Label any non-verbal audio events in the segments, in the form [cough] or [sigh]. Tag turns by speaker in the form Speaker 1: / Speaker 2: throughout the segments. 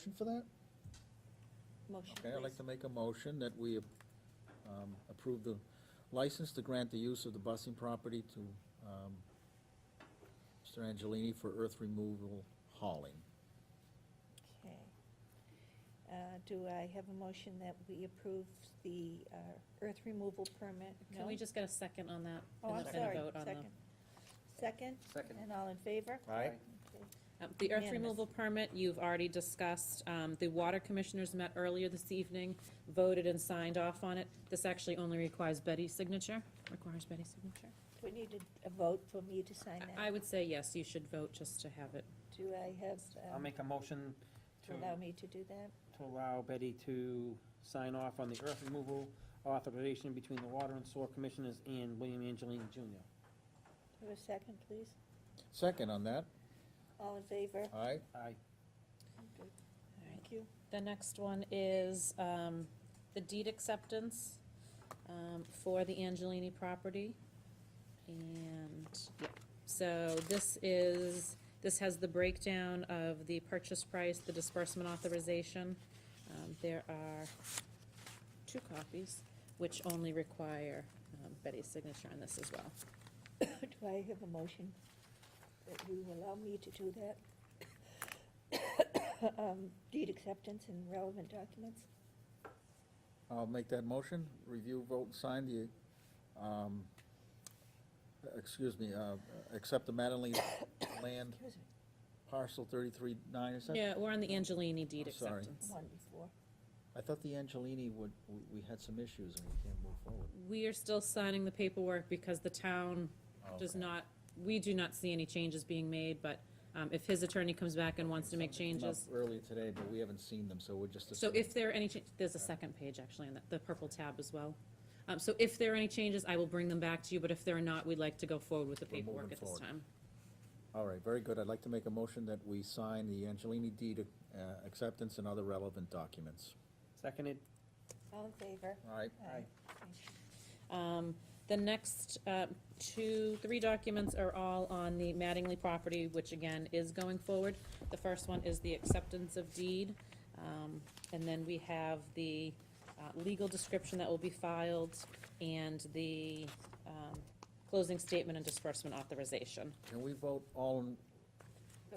Speaker 1: Motion for that?
Speaker 2: Motion,
Speaker 1: Okay, I'd like
Speaker 2: please.
Speaker 1: to make a motion that we um, approve the license to grant the use of the busing property to um, Mr. Angelini for earth removal hauling.
Speaker 2: Okay. Uh, Do I have a motion that we approve the uh, earth removal permit?
Speaker 3: Can we
Speaker 2: No?
Speaker 3: just get a second on that?
Speaker 2: Oh,
Speaker 3: and
Speaker 2: I'm
Speaker 3: then a
Speaker 2: sorry,
Speaker 3: vote on the-
Speaker 2: second. Second,
Speaker 4: Second.
Speaker 2: and all in favor?
Speaker 1: Aye.
Speaker 2: Okay.
Speaker 3: Um, The earth
Speaker 2: Unanimous.
Speaker 3: removal permit, you've already discussed. Um, The water commissioners met earlier this evening, voted and signed off on it. This actually only requires Betty's signature, requires Betty's signature.
Speaker 2: Do we need a- a vote for me to sign
Speaker 3: I- I
Speaker 2: that?
Speaker 3: would say yes, you should vote just to have it.
Speaker 2: Do I have,
Speaker 4: I'll
Speaker 2: um,
Speaker 4: make a motion
Speaker 2: to
Speaker 4: to,
Speaker 2: allow me to do that?
Speaker 4: to allow Betty to sign off on the earth removal authorization between the Water and Sewer Commissioners and William Angelini Jr.
Speaker 2: Do a second, please?
Speaker 1: Second on that,
Speaker 2: All in favor?
Speaker 1: aye?
Speaker 4: Aye.
Speaker 2: Thank you. [coughs]
Speaker 3: The next one is um, the deed acceptance um, for the Angelini property. And, yeah, so this is, this has the breakdown of the purchase price, the disbursement authorization. Um, There are two copies, which only require um, Betty's signature on this as well.
Speaker 2: Do I have a motion that you allow me to do that? [coughs] Um, Deed acceptance and relevant documents?
Speaker 1: I'll make that motion, review, vote, and sign the, um, excuse me, uh, accept the Mattingly land
Speaker 2: Excuse me,
Speaker 1: parcel 33-9, is that? Oh,
Speaker 3: Yeah, we're on the Angelini deed
Speaker 1: I'm sorry.
Speaker 3: acceptance.
Speaker 2: One before.
Speaker 1: I thought the Angelini would, we- we had some issues and we can't move forward.
Speaker 3: We are still signing the paperwork because the town does
Speaker 1: Okay.
Speaker 3: not, we do not see any changes being made, but um, if his attorney comes back and wants to make
Speaker 1: Something came up
Speaker 3: changes,
Speaker 1: Earlier today, but we haven't seen them, so we're just.
Speaker 3: so
Speaker 1: assuming.
Speaker 3: if there are any, cha- there's a second page actually, in the- the purple tab as well. Um, So if there are any changes, I will bring them back to you, but if there are not, we'd like to go forward with the
Speaker 1: We're moving
Speaker 3: paperwork at this
Speaker 1: forward.
Speaker 3: time.
Speaker 1: All right, very good. I'd like to make a motion that we sign the Angelini deed uh, acceptance and other relevant documents.
Speaker 4: Seconded.
Speaker 2: All in favor?
Speaker 1: All right,
Speaker 4: Aye.
Speaker 3: Um, The next uh, two, three documents are all on the Mattingly property, which again is going forward. The first one is the acceptance of deed, um, and then we have the uh, legal description that will be filed and the um, closing statement and disbursement authorization.
Speaker 1: can we vote all, in-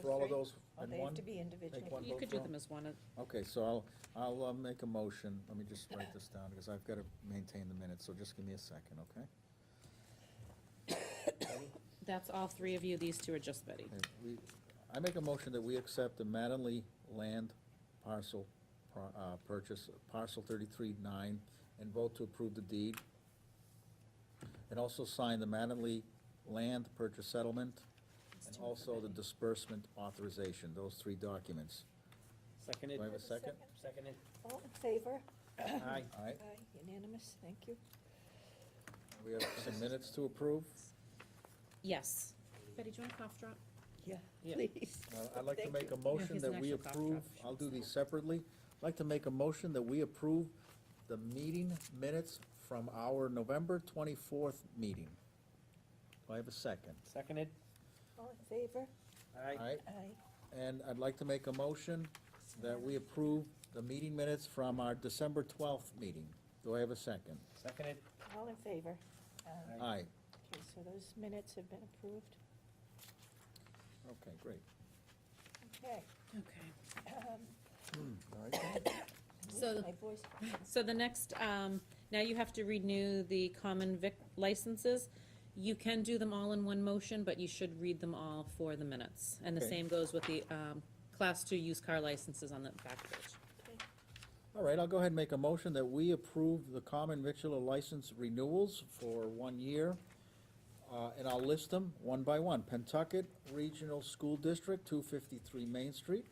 Speaker 1: for all of
Speaker 2: Those
Speaker 1: those
Speaker 2: three? Oh,
Speaker 1: in
Speaker 2: They have
Speaker 1: one?
Speaker 2: to be individual.
Speaker 1: Take one
Speaker 3: You
Speaker 1: vote
Speaker 3: could
Speaker 1: for
Speaker 3: do
Speaker 1: all?
Speaker 3: them as one. uh,
Speaker 1: Okay, so I'll, I'll uh, make a motion. Let me just write this down because I've got to maintain the minutes, so just give me a second, okay?
Speaker 3: That's all three of you, these two are just Betty.
Speaker 1: Okay, we- I make a motion that we accept the Mattingly land parcel, par- uh, purchase, parcel thirty-three nine, and vote to approve the deed. And also sign the Mattingly land purchase settlement, and also the disbursement authorization, those three documents.
Speaker 4: Seconded.
Speaker 1: Do I have a second?
Speaker 4: Seconded.
Speaker 2: All in favor?
Speaker 4: Aye.
Speaker 1: All right,
Speaker 2: Aye, unanimous, thank you.
Speaker 1: we have some minutes to approve.
Speaker 3: Yes. Betty, do you want a cough drop?
Speaker 2: Yeah,
Speaker 4: Yeah.
Speaker 2: please.
Speaker 1: Uh, I'd like to
Speaker 2: Thank
Speaker 1: make
Speaker 2: you.
Speaker 1: a motion
Speaker 3: he's
Speaker 1: that
Speaker 3: an
Speaker 1: we
Speaker 3: actual cough
Speaker 1: approve,
Speaker 3: drop.
Speaker 1: I'll do these separately. I'd like to make a motion that we approve the meeting minutes from our November twenty-fourth meeting. Do I have a second?
Speaker 4: Seconded.
Speaker 2: All in favor?
Speaker 4: Aye.
Speaker 1: All right,
Speaker 2: Aye.
Speaker 1: and I'd like to make a motion that we approve the meeting minutes from our December twelfth meeting. Do I have a second?
Speaker 4: Seconded.
Speaker 2: All in favor? Um,
Speaker 4: Aye.
Speaker 1: Aye,
Speaker 2: Okay, so those minutes have been approved.
Speaker 1: okay, great.
Speaker 2: Okay.
Speaker 3: Okay.
Speaker 2: um,
Speaker 1: All right.
Speaker 3: So-
Speaker 2: My voice,
Speaker 3: So the next, um, now you have to renew the common vic licenses. You can do them all in one motion, but you should read them all for the minutes. And the
Speaker 1: Okay.
Speaker 3: same goes with the, um, class two used car licenses on the back page.
Speaker 2: okay,
Speaker 1: All right, I'll go ahead and make a motion that we approve the common victular license renewals for one year. Uh, and I'll list them one by one. Pentucket Regional School District, two fifty-three Main Street.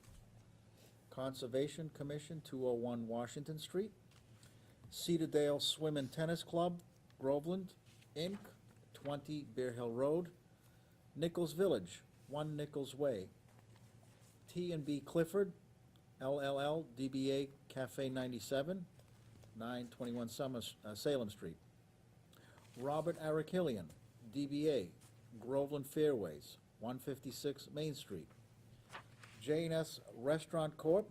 Speaker 1: Conservation Commission, two oh one Washington Street. Cedardale Swim and Tennis Club, Groveland, Inc., twenty Bear Hill Road. Nichols Village, one Nichols Way. T and B Clifford, LLL DBA Cafe 97, 921 Summer, uh, Salem Street. Robert Arakilian, DBA Groveland Fairways, 156 Main Street. J&S Restaurant Corp.,